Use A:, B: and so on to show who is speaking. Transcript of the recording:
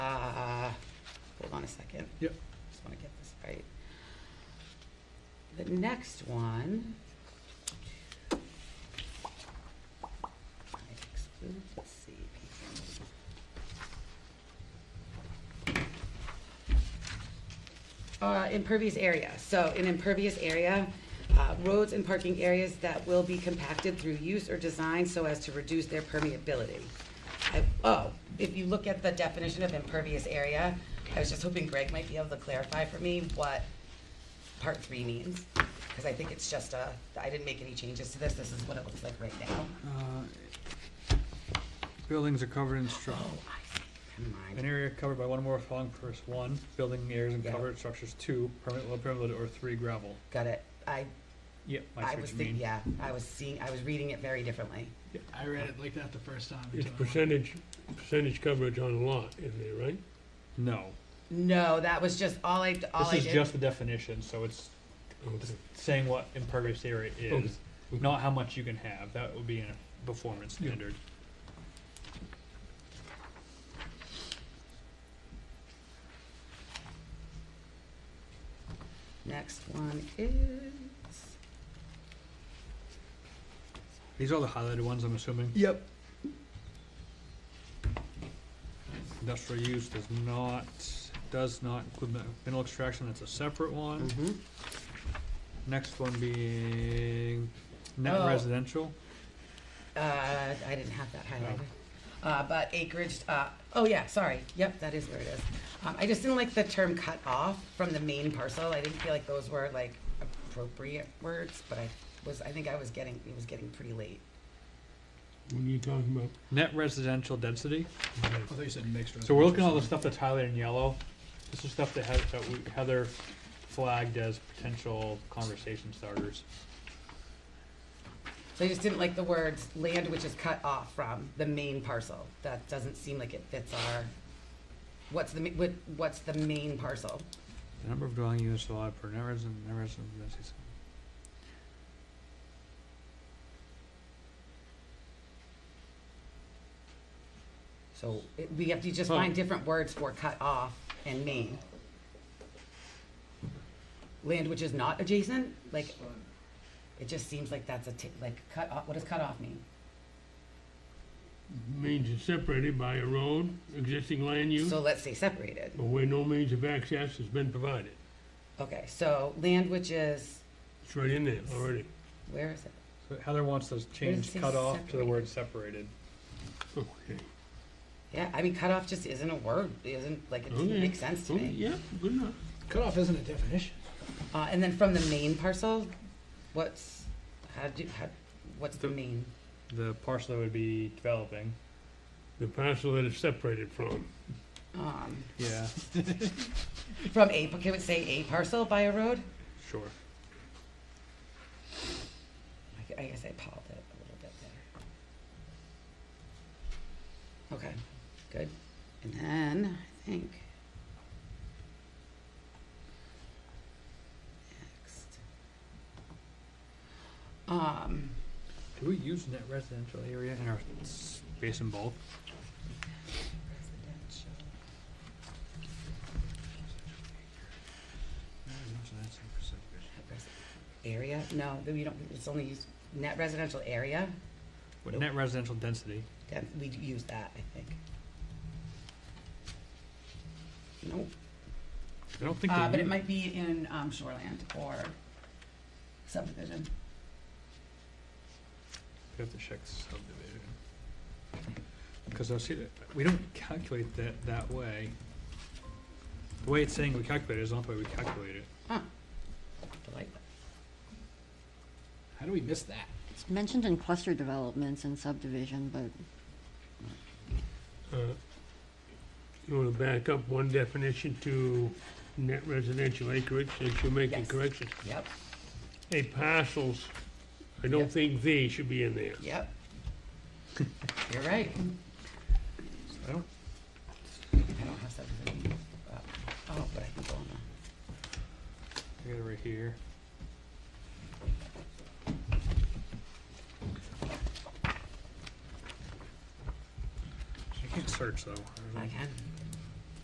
A: Ah, on a second.
B: Yep.
A: Just want to get this right. The next one. Excludes CPC. Uh, impervious area, so an impervious area, uh, roads and parking areas that will be compacted through use or design so as to reduce their permeability. I- Oh, if you look at the definition of impervious area, I was just hoping Greg might be able to clarify for me what part three means, because I think it's just a, I didn't make any changes to this, this is what it looks like right now.
B: Uh, Buildings are covered in stru-
A: Oh, I see, never
B: an
A: mind.
B: area covered by one or more following purpose, one, building areas and
A: Yeah.
B: covered structures, two, permanent, low permeable, or three, gravel.
A: Got it, I,
B: Yep, I
A: I was
B: see what you mean.
A: thinking, yeah, I was seeing, I was reading it very differently.
C: I read it like that the first time. until
D: It's
C: I went-
D: percentage, percentage coverage on a lot in there, right?
B: No,
A: No, that was just all I, all I
B: this
A: did.
B: is just the definition, so it's
D: Okay.
B: saying what impervious area
D: Okay.
B: is, not how much you can have, that would be a performance
D: Yeah.
B: standard.
A: Next one is,
B: These are the highlighted ones, I'm assuming.
C: Yep.
B: Industrial use does not, does not include mi- mineral extraction, that's a separate
A: Mm-hmm.
B: one. Next one being net
A: Oh.
B: residential.
A: uh, I didn't have that highlighted. Uh, but acreage, uh, oh yeah, sorry, yep, that is where it is. Um, I just didn't like the term cut off from the main parcel. I didn't feel like those were like appropriate words, but I was, I think I was getting, it was getting pretty late.
D: What are you talking about?
B: Net residential density.
C: I thought you said mixed.
B: So we're looking at all the
C: residential.
B: stuff that's highlighted in yellow. This is stuff that Heather, that we, Heather flagged as potential conversation starters.
A: So I just didn't like the words land which is cut off from the main parcel. That doesn't seem like it fits our, what's the, ma- what, what's the main parcel?
B: The number of dwelling units allowed per net resident, net resident density.
A: So it- we have to just
B: Huh.
A: find different words for cut off and main. Land which is not adjacent, like, it just seems like that's a, ti- like, cut off, what does cut off mean?
D: Means it's separated by a road, existing land use,
A: So let's say separated.
D: or where no means of access has been provided.
A: Okay, so land which is,
D: It's right in there already.
A: where is it?
B: So Heather wants us
A: it
B: changed
A: say
B: cut off to the word separated.
D: Okay.
A: Yeah, I mean, cut off just isn't a word, isn't, like, it doesn't
D: Okay.
A: make sense to
D: Okay,
A: me.
D: Yeah, good enough.
C: Cutoff isn't a definition.
A: Uh, and then from the main parcel, what's, how do, how, what's the
B: The-
A: main?
B: The parcel that would be developing.
D: The parcel that it's separated from.
A: Um,
B: Yeah,
A: from a, can we say a parcel by a road?
B: sure.
A: I gu- I guess I pulled it a little bit there. Okay, good. And then, I think. Next. Um,
B: Do we use net residential area in our space and bulk?
A: residential. Area, no, then we don't, it's only used, net residential area,
B: What, Net residential density.
A: that, we d- use that, I think. Nope.
B: I don't think
A: Uh, but
B: they
A: it
B: use.
A: might be in, um, shoreland or subdivision.
B: We have to check subdivision. Because I see that, we don't calculate that that way. The way it's saying we calculate it is not the way we calculate it.
A: Like,
C: How do we miss that?
E: It's mentioned in cluster developments and subdivision, but
D: Uh, You wanna back up one definition to net residential acreage, since you're making
A: Yes.
D: corrections?
A: Yep,
D: A parcels, I don't
A: Yep.
D: think they should be in there.
A: yep. You're right.
B: So I don't,
A: I don't have subdivision. Uh, Oh, but I can go on the,
B: I got it right here. I can't search though. I don't
A: I
B: know.
A: can.